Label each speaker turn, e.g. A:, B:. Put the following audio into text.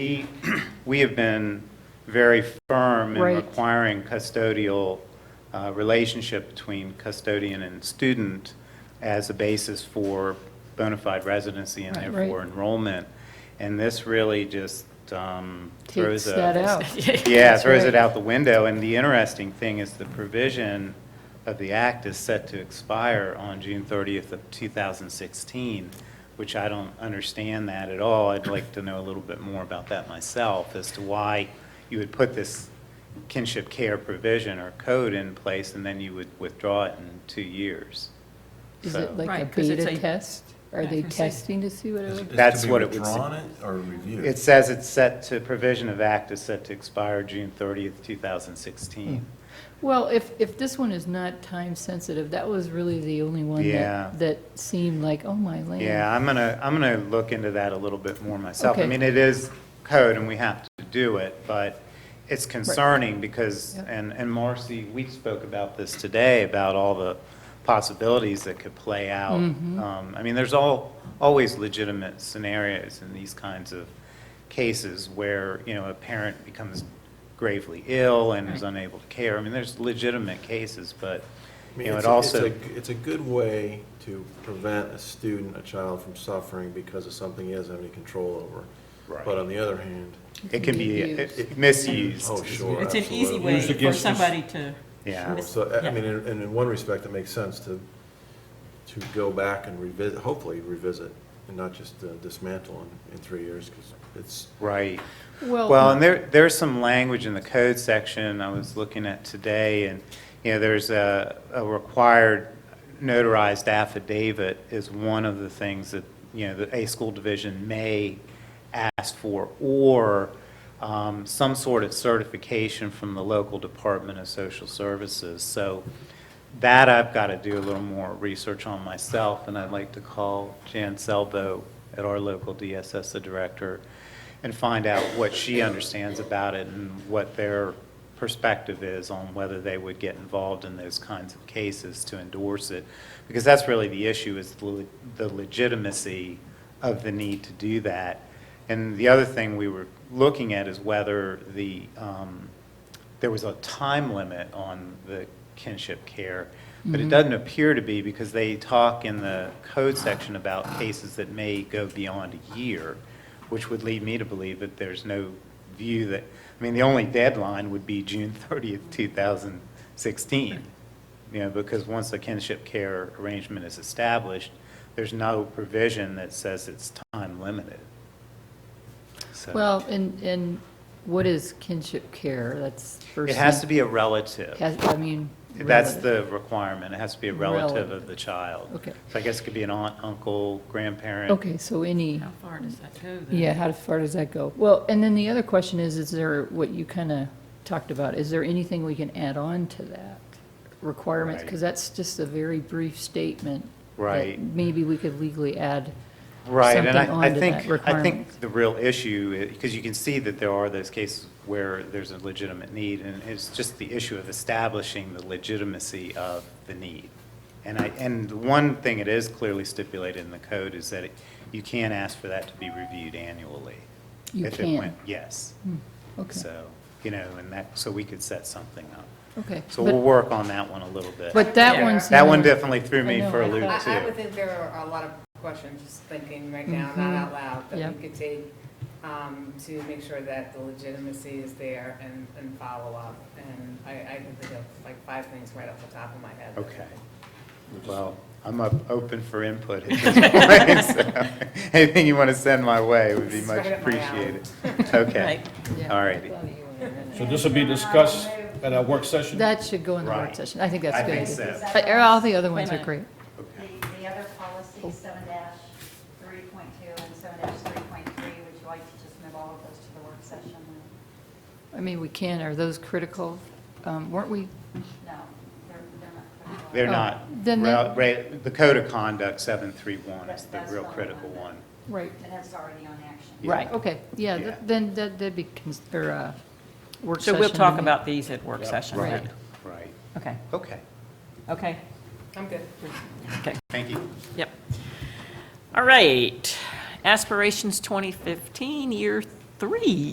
A: We- We have been very firm in
B: Right.
A: requiring custodial uh, relationship between custodian and student as a basis for bona fide residency and
B: Right.
A: therefore enrollment. And this really just um,
B: takes
A: throws a...
B: that out.
A: Yeah,
B: That's
A: throws
B: right.
A: it out the window. And the interesting thing is the provision of the act is set to expire on June 30th of 2016, which I don't understand that at all. I'd like to know a little bit more about that myself as to why you would put this kinship care provision or code in place and then you would withdraw it in two years.
B: Is
A: So-
B: it like a
C: Right, 'cause it's
B: beta
C: a-
B: test? Are they testing to see what it would?
A: That's what it would
D: Withdrawn it or reviewed?
A: It says it's set to, provision of act is set to expire June 30th, 2016.
B: Well, if, if this one is not time sensitive, that was really the only one
A: Yeah.
B: that, that seemed like, oh my land.
A: Yeah, I'm gonna, I'm gonna look into that a little bit more myself. I
B: Okay.
A: mean, it is code and we have to do it, but it's concerning because,
B: Yep.
A: and, and Marcy, we spoke about this today, about all the possibilities that could play out. Um, I mean, there's all, always legitimate scenarios in these kinds of cases where, you know, a parent becomes gravely ill and is unable to care. I mean, there's legitimate cases, but, you
D: I mean,
A: know, it
D: it's a- it's
A: also.
D: a- It's a good way to prevent a student, a child from suffering because of something he doesn't have any control over.
A: Right.
D: But on the other hand,
A: It can be uh,
B: Misused.
A: misused.
D: oh, sure,
C: It's an easy
D: absolutely.
C: way
E: Used
C: for
E: against us.
C: somebody to,
A: Yeah.
C: Mis-
D: So, I- I
C: Yeah.
D: mean, and and in one respect, it makes sense to, to go back and revisit, hopefully revisit, and not just uh, dismantle in, in three years, because it's,
A: Right. Well, and
B: Well,
A: there, there's some language in the code section I was looking at today, and, you know, there's a, a required notarized affidavit is one of the things that, you know, that a school division may ask for, or um, some sort of certification from the local Department of Social Services. So that I've got to do a little more research on myself, and I'd like to call Jan Selbo at our local DSS, the director, and find out what she understands about it and what their perspective is on whether they would get involved in those kinds of cases to endorse it. Because that's really the issue, is the le- the legitimacy of the need to do that. And the other thing we were looking at is whether the, um, there was a time limit on the kinship care, but
B: Mm-hmm.
A: it doesn't appear to be because they talk in the code section about cases that may go beyond a year, which would lead me to believe that there's no view that, I mean, the only deadline would be June 30th, 2016. You know, because once a kinship care arrangement is established, there's no provision that says it's time limited. So-
B: well, and, and what is kinship care? That's first.
A: It has to be a relative.
B: has- I mean.
A: That's
B: relative.
A: the requirement, it has to be a relative of the child.
B: Okay.
A: So I guess it could be an aunt, uncle, grandparent.
B: Okay, so any,
C: how far does that go? then?
B: yeah, how far does that go? Well, and then the other question is, is there, what you kind of talked about, is there anything we can add on to that requirements?
A: Right.
B: Because that's just a very brief statement. that
A: Right.
B: Maybe we could legally add.
A: Right, and
B: something
A: I, I
B: onto
A: think,
B: that
A: I think
B: requirement.
A: the real issue, because you can see that there are those cases where there's a legitimate need, and it's just the issue of establishing the legitimacy of the need. And I, and the one thing it is clearly stipulated in the code is that it- you can ask for that to be reviewed annually.
B: You
A: if it
B: can. Hmm,
A: went- Yes,
B: Okay,
A: so, you know, and that, so we could set something up.
B: okay.
A: So
B: But-
A: we'll work on that one a little bit.
B: But that
F: Yeah.
B: one's.
A: That one
B: not-
A: definitely threw me
B: I know,
A: for a
B: I
A: loop
F: I, I would
A: too.
F: think there are a lot of questions, just thinking right now, not out loud, that
B: Yep.
F: we could take um, to make sure that the legitimacy is there and, and follow up. And I, I can think of like five things right off the top of my head.
A: Okay. Well, I'm up, open for input at this point. so Anything you want to send my way would be much
F: Straight up my alley.
A: appreciated. Okay,
C: Right.
B: Yeah.
A: all righty.
E: So this will be discussed at our work session?
B: That should go in the work
A: Right.
B: session. I think that's
A: I
B: a good.
A: think
B: idea.
A: so.
B: But uh, All the other ones
C: Wait a
B: are great.
A: Okay.
G: The, the other policy, seven three point two and seven three point three, would you like to just move all of those to the work session?
B: I mean, we can, are those critical? Um, Weren't we,
G: No, they're, they're not. critical.
A: They're
B: Oh,
A: not,
B: then that-
A: Ra- ra- the Code of Conduct 731 is the
G: That's
A: real
G: the one
A: critical
G: that-
A: one.
B: right,
G: And that's already on action.
A: Yeah.
B: right, okay, yeah, th-
A: Yeah.
B: then that- that'd be, cons- or, uh, work
C: So
B: session.
C: we'll talk
B: and-
C: about these at work session
B: Right.
C: then?
A: Right,
C: Okay,
A: okay,
C: okay,
F: I'm good.
C: okay,
A: thank you.
C: yep. All right, aspirations 2015, year three.